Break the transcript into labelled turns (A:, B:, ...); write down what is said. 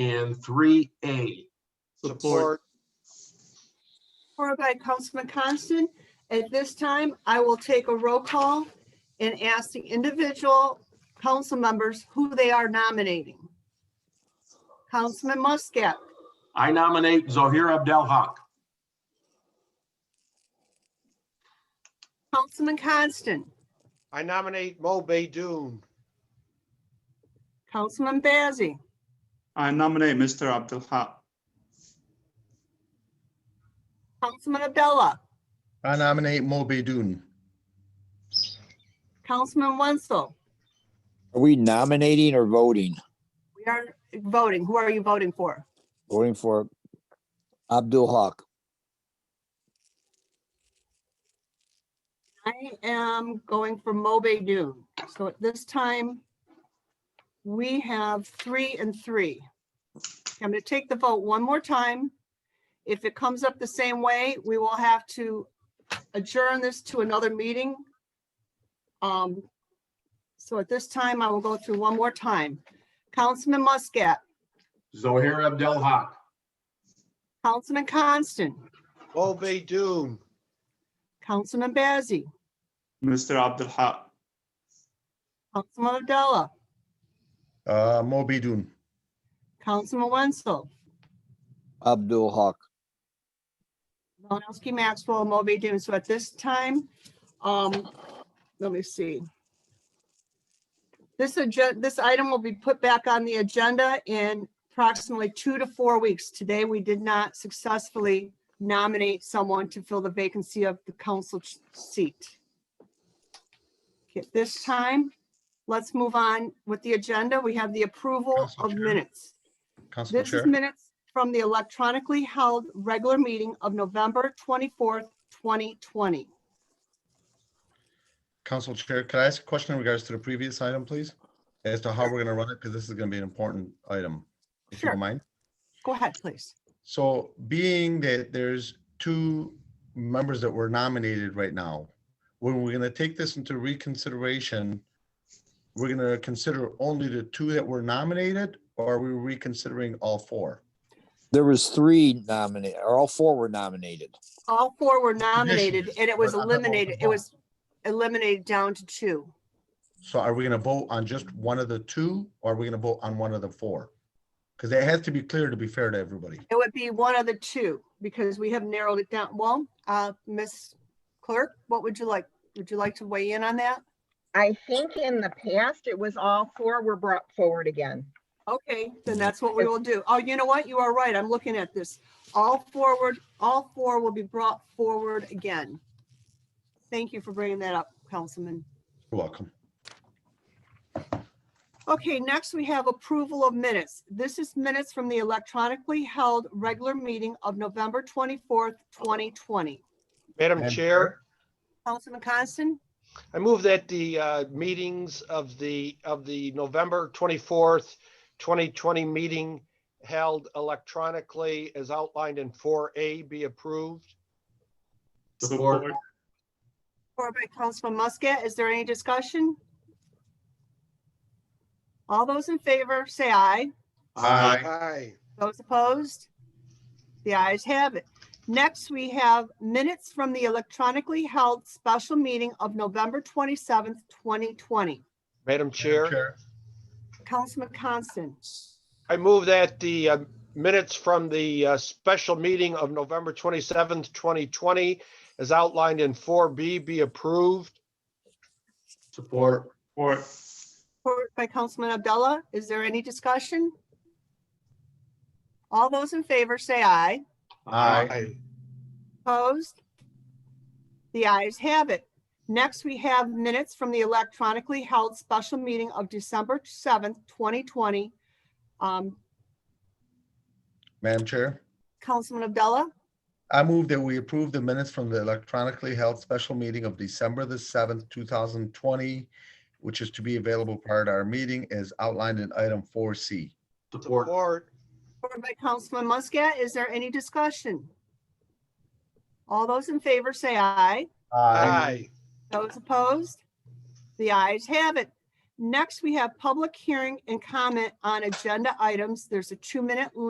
A: and three A.
B: Support.
C: Supported by Councilman Constant. At this time, I will take a roll call and ask the individual council members who they are nominating. Councilman Muscat,
A: I nominate Zohair Abdel-Hak.
C: Councilman Constant,
B: I nominate Mo Baidoon.
C: Councilman Bazey,
D: I nominate Mr. Abdul Haq.
C: Councilman Abdullah,
E: I nominate Mo Baidoon.
C: Councilman Wenzel.
F: Are we nominating or voting?
C: We are voting. Who are you voting for?
F: Voting for Abdul Haq.
C: I am going for Mobe Dune. So at this time, we have three and three. I'm going to take the vote one more time. If it comes up the same way, we will have to adjourn this to another meeting. Um, So at this time, I will go through one more time. Councilman Muscat,
A: Zohair Abdel-Hak.
C: Councilman Constant,
B: Mo Baidoon.
C: Councilman Bazey,
D: Mr. Abdul Haq.
C: Councilman Abdullah,
E: Uh, Mo Baidoon.
C: Councilman Wenzel,
F: Abdul Haq.
C: Malinowski, Maxwell, Moby Dune. So at this time, um, let me see. This agenda, this item will be put back on the agenda in approximately two to four weeks. Today, we did not successfully nominate someone to fill the vacancy of the council ch- seat. At this time, let's move on with the agenda. We have the approval
E: Council
C: of
E: Chair?
C: minutes.
E: Council
C: This
E: Chair.
C: is minutes from the electronically held regular meeting of November 24th, 2020.
E: Council Chair, could I ask a question in regards to the previous item, please? As to how we're gonna run it, because this is gonna be an important item, if you
C: Sure.
E: don't mind.
C: Go ahead, please.
E: So being that there's two members that were nominated right now, when we're gonna take this into reconsideration, we're gonna consider only the two that were nominated, or are we reconsidering all four?
F: There was three nominated, or all four were nominated.
C: All four were nominated and it was
E: but I'm not voting
C: eliminated, it
E: for.
C: was eliminated down to two.
E: So are we gonna vote on just one of the two, or are we gonna vote on one of the four? Because that has to be clear to be fair to everybody.
C: It would be one of the two because we have narrowed it down. Well, uh, Ms. Clerk, what would you like? Would you like to weigh in on that?
G: I think in the past, it was all four were brought forward again.
C: Okay, then that's what we will do. Oh, you know what? You are right. I'm looking at this. All forward, all four will be brought forward again. Thank you for bringing that up, Councilman.
E: You're welcome.
C: Okay, next we have approval of minutes. This is minutes from the electronically held regular meeting of November 24th, 2020.
B: Madam
E: Madam
B: Chair,
E: Chair.
C: Councilman Constant,
B: I move that the uh, meetings of the, of the November 24th, 2020 meeting held electronically as outlined in 4A be approved.
A: Support.
C: or by Councilman Muscat, is there any discussion? All those in favor, say aye.
E: Aye.
B: Aye.
C: Those opposed? The ayes have it. Next, we have minutes from the electronically held special meeting of November 27th, 2020.
B: Madam Chair,
C: Councilman Constant,
B: I move that the uh, minutes from the uh, special meeting of November 27th, 2020 as outlined in 4B be approved.
A: Support.
D: Support.
C: Support by Councilman Abdullah. Is there any discussion? All those in favor say aye.
E: Aye.
C: Opposed? The ayes have it. Next, we have minutes from the electronically held special meeting of December 7th, 2020. Um,
E: Madam Chair,
C: Councilman Abdullah,
E: I move that we approve the minutes from the electronically held special meeting of December the seventh, two thousand twenty, which is to be available prior to our meeting as outlined in item four C.
A: Support.
B: Support.
C: supported by Councilman Muscat. Is there any discussion? All those in favor say aye.
B: Aye.
C: Those opposed? The ayes have it. Next, we have public hearing and comment on agenda items. There's a two-minute